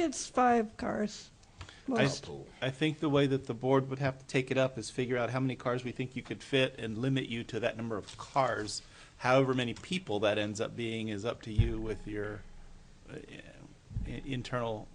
It's five cars. I, Well, s- I think the way that the board would have to take it up is figure out how many cars we think you could fit and limit you to that number of cars. However many people that ends up being is up to you with your uh, i- internal,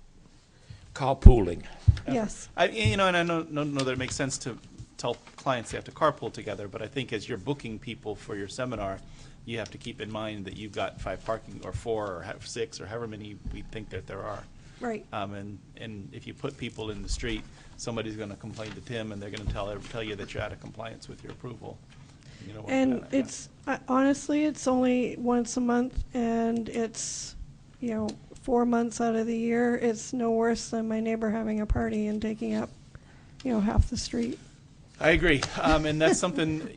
carpooling. Yes, I, you know, and I don't, don't know that it makes sense to tell clients they have to carpool together, but I think as you're booking people for your seminar, you have to keep in mind that you've got five parking, or four, or have six, or however many we think that there are. right. Um, and, and if you put people in the street, somebody's gonna complain to Tim and they're gonna tell, tell you that you're out of compliance with your approval. You don't want that And to happen. it's, I- honestly, it's only once a month and it's, you know, four months out of the year. It's no worse than my neighbor having a party and taking up, you know, half the street. I agree, um, and that's something,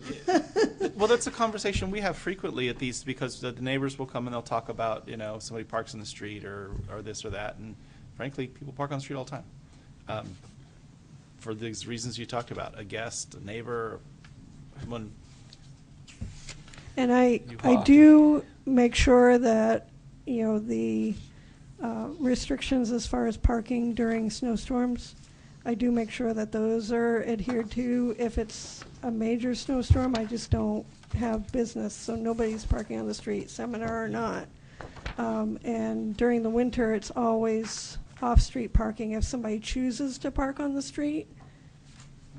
well, that's a conversation we have frequently at these, because the neighbors will come and they'll talk about, you know, somebody parks in the street or, or this or that, and frankly, people park on the street all the time. Um, For these reasons you talked about, a guest, a neighbor, someone, And I, You I are. do make sure that, you know, the uh, restrictions as far as parking during snowstorms, I do make sure that those are adhered to. If it's a major snowstorm, I just don't have business, so nobody's parking on the street, seminar or not. Um, And during the winter, it's always off-street parking. If somebody chooses to park on the street,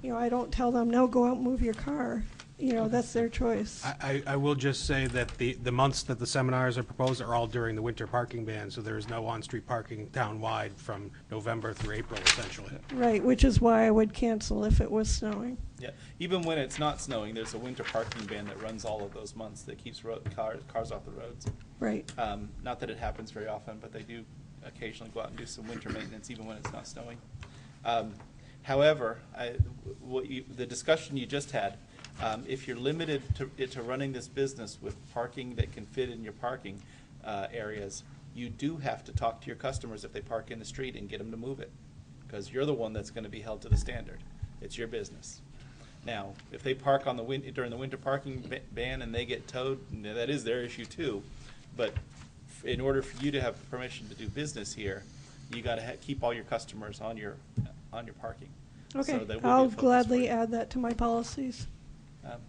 you know, I don't tell them, no, go out and move your car. You know, that's their choice. I, I I will just say that the, the months that the seminars are proposed are all during the winter parking ban, so there is no on-street parking town-wide from November through April essentially. Right, which is why I would cancel if it was snowing. Yeah, even when it's not snowing, there's a winter parking ban that runs all of those months that keeps road, cars, cars off the roads. Right, Um, not that it happens very often, but they do occasionally go out and do some winter maintenance even when it's not snowing. Um, however, I, what you, the discussion you just had, um, if you're limited to, it to running this business with parking that can fit in your parking, uh, areas, you do have to talk to your customers if they park in the street and get them to move it. Cause you're the one that's gonna be held to the standard. It's your business. Now, if they park on the win, during the winter parking ba- ban and they get towed, n- that is their issue too. But f- in order for you to have permission to do business here, you gotta ha- keep all your customers on your, on your parking. So okay. that will be a I'll focus for you. gladly add that to my policies. Um,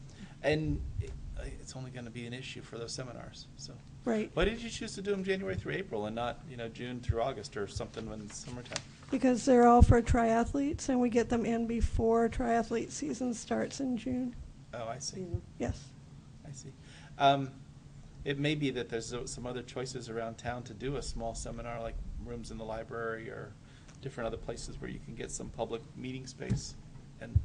And it- it's only gonna be an issue for those seminars, so. Right, Why did you choose to do them January through April and not, you know, June through August or something when it's summertime? because they're all for triathletes and we get them in before triathlete season starts in June. Oh, I see. Yes, I see. Um, it may be that there's o- some other choices around town to do a small seminar, like rooms in the library or different other places where you can get some public meeting space and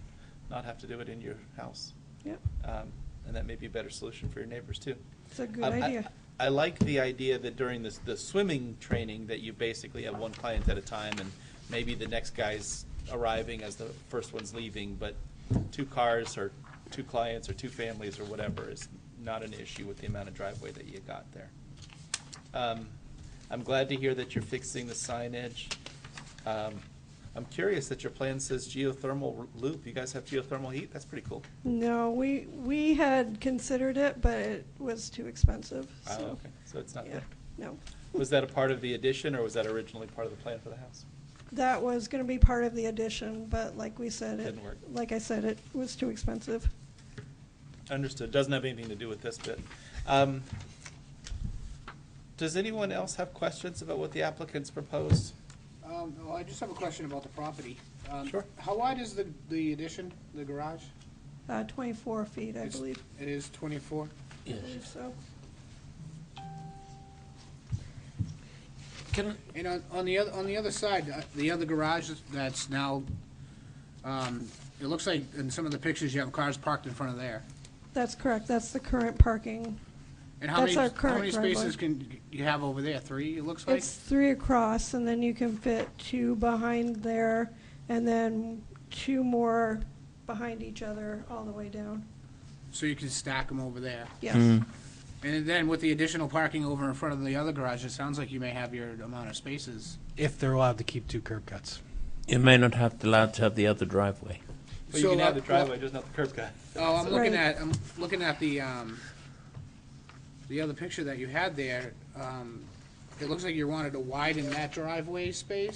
not have to do it in your house. yep, Um, and that may be a better solution for your neighbors too. it's a good Um, I- idea. I like the idea that during this, the swimming training, that you basically have one client at a time, and maybe the next guy's arriving as the first one's leaving, but two cars or two clients or two families or whatever is not an issue with the amount of driveway that you got there. Um, I'm glad to hear that you're fixing the signage. Um, I'm curious that your plan says geothermal r- loop. You guys have geothermal heat? That's pretty cool. No, we, we had considered it, but it was too expensive, Oh, so. okay. So it's not yeah, there. No, Was that a part of the addition, or was that originally part of the plan for the house? that was gonna be part of the addition, but like we said, it, Didn't work. like I said, it was too expensive. Understood. Doesn't have anything to do with this bit. Um, Does anyone else have questions about what the applicants proposed? Um, well, I just have a question about the property. Um, Sure. How wide is the, the addition, the garage? Uh, twenty-four feet, I It's- believe. It is twenty-four? I believe so. Can, And on, on the other, on the other side, uh, the other garage that's now, um, it looks like in some of the pictures you have cars parked in front of there. That's correct, that's the current parking. And how many, That's our how many current driveway. spaces can you have over there? Three, it looks like? It's three across, and then you can fit two behind there, and then two more behind each other all the way down. So you can stack them over there. Yes, And then with the additional parking over in front of the other garage, it sounds like you may have your amount of spaces. If they're allowed to keep two curb cuts. you may not have to allowed to have the other driveway. Well, you can So, have the uh, driveway, just not the curb cut. Oh, I'm looking Right. at, I'm looking at the, um, the other picture that you had there. Um, it looks like you wanted to widen that driveway space.